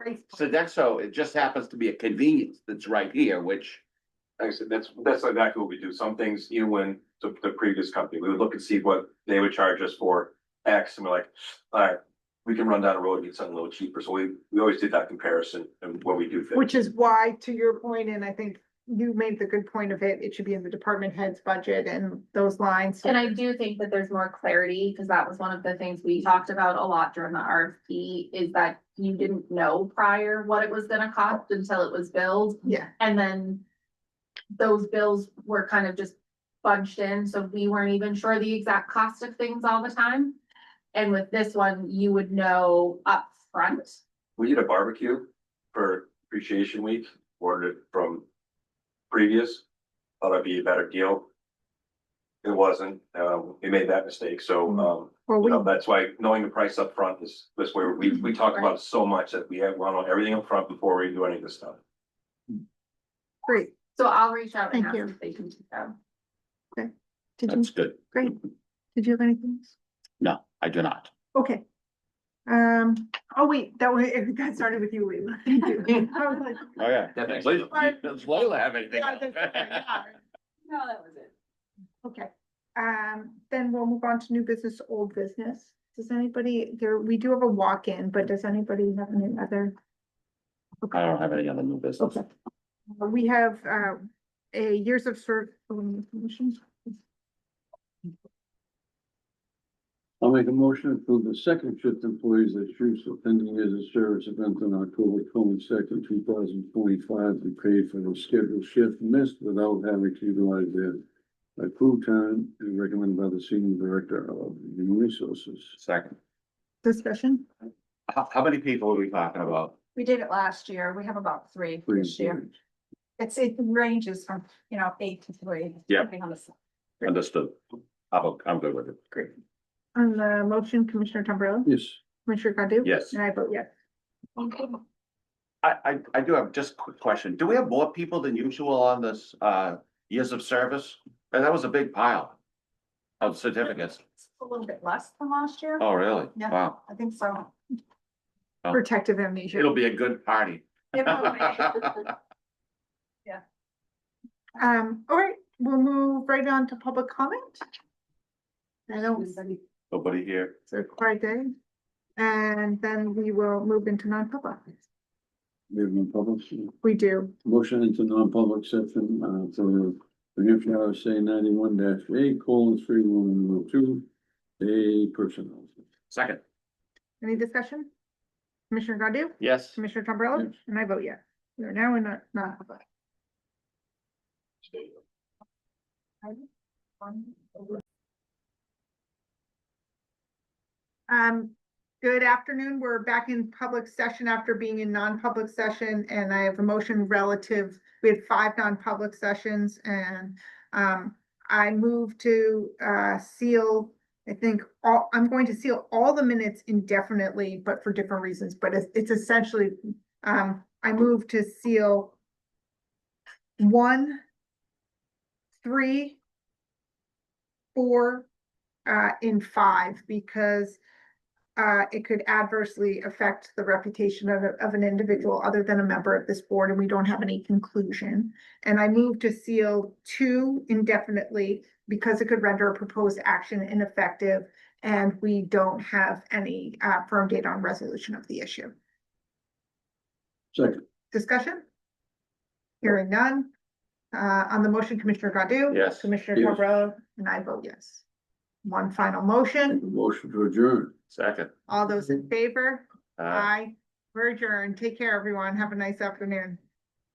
Sodexo, it just happens to be a convenience that's right here, which, Like I said, that's, that's exactly what we do. Some things, even when the, the previous company, we would look and see what they would charge us for X and we're like, all right, we can run down the road and get something a little cheaper. So we, we always did that comparison and what we do. things. Which is why, to your point, and I think you made the good point of it, it should be in the department head's budget and those lines. And I do think that there's more clarity, because that was one of the things we talked about a lot during the RFP, is that you didn't know prior what it was gonna cost until it was billed, Yeah, and then those bills were kind of just budged in, so we weren't even sure the exact cost of things all the time. And with this one, you would know upfront. We did a barbecue for appreciation week, ordered it from previous, thought it'd be a better deal. It wasn't, um, we made that mistake, so, um, well, you we, know, that's why knowing the price up front is, is where we, we talk about it so much that we have, we know everything up front before we do any of this stuff. great. So I'll reach out and Thank ask you. if they can do that. Did you, that's good. great. Did you have anything? else? No, I do not. Okay. Um, oh wait, that was, that started with you, Leila. Thank you. I was like, Oh, yeah. That makes- Does Leila have anything? yeah, that's okay, yeah. No, that was it. Okay, um, then we'll move on to new business, old business. Does anybody, there, we do have a walk-in, but does anybody have any other? I don't have any other new business. Okay. Uh, We have, uh, a years of serv- um, information. I'll make a motion to approve the second shift employees at Shrewsbury pending years of service event on October twenty-second, two thousand twenty-five, to pay for the scheduled shift missed without having to utilize their approved time and recommended by the senior director of human resources. Second. discussion. How, how many people are we talking about? We did it last year. We have about three Three this year. employees. It's, it ranges from, you know, eight to three. Yeah. depending on the s- Understood. I'm, I'm good with it. Great. On the motion, Commissioner Tombrilla, Yes, Commissioner Godu? Yes. And I vote yes. I, I, I do have just a quick question. Do we have more people than usual on this, uh, years of service? And that was a big pile of certificates. It's A little bit less than last year. Oh, really? Yeah. Wow. I think so. Oh. Protective amnesia. It'll be a good party. Yeah, probably. Um, all right, we'll move right on to public comment. I don't, Nobody here. it's a quiet day. And then we will move into non-public. we have no public. We do. Motion into non-public section, uh, for New Hampshire RSA ninety-one dash eight, colon, three, one, one, two, a personnel. Second. Any discussion? Commissioner Godu? Yes. Commissioner Tombrilla? Yes. And I vote yes. We are now in a non-public. Um, good afternoon. We're back in public session after being in non-public session and I have a motion relative. We had five non-public sessions and um, I move to uh seal. I think all, I'm going to seal all the minutes indefinitely, but for different reasons, but it's it's essentially, um, I move to seal. One. Three. Four, uh, in five, because uh, it could adversely affect the reputation of, a- of an individual other than a member of this board, and we don't have any conclusion. And I move to seal two indefinitely because it could render a proposed action ineffective, and we don't have any, uh, firm date on resolution of the issue. Second. Discussion? Hearing none. Uh, on the motion, Commissioner Godu? Yes. Commissioner Yes. Cabral, and I vote yes. One final Make a motion. motion to adjourn. Second. All those in favor? Uh, Aye. We're adjourned. Take care, everyone. Have a nice afternoon.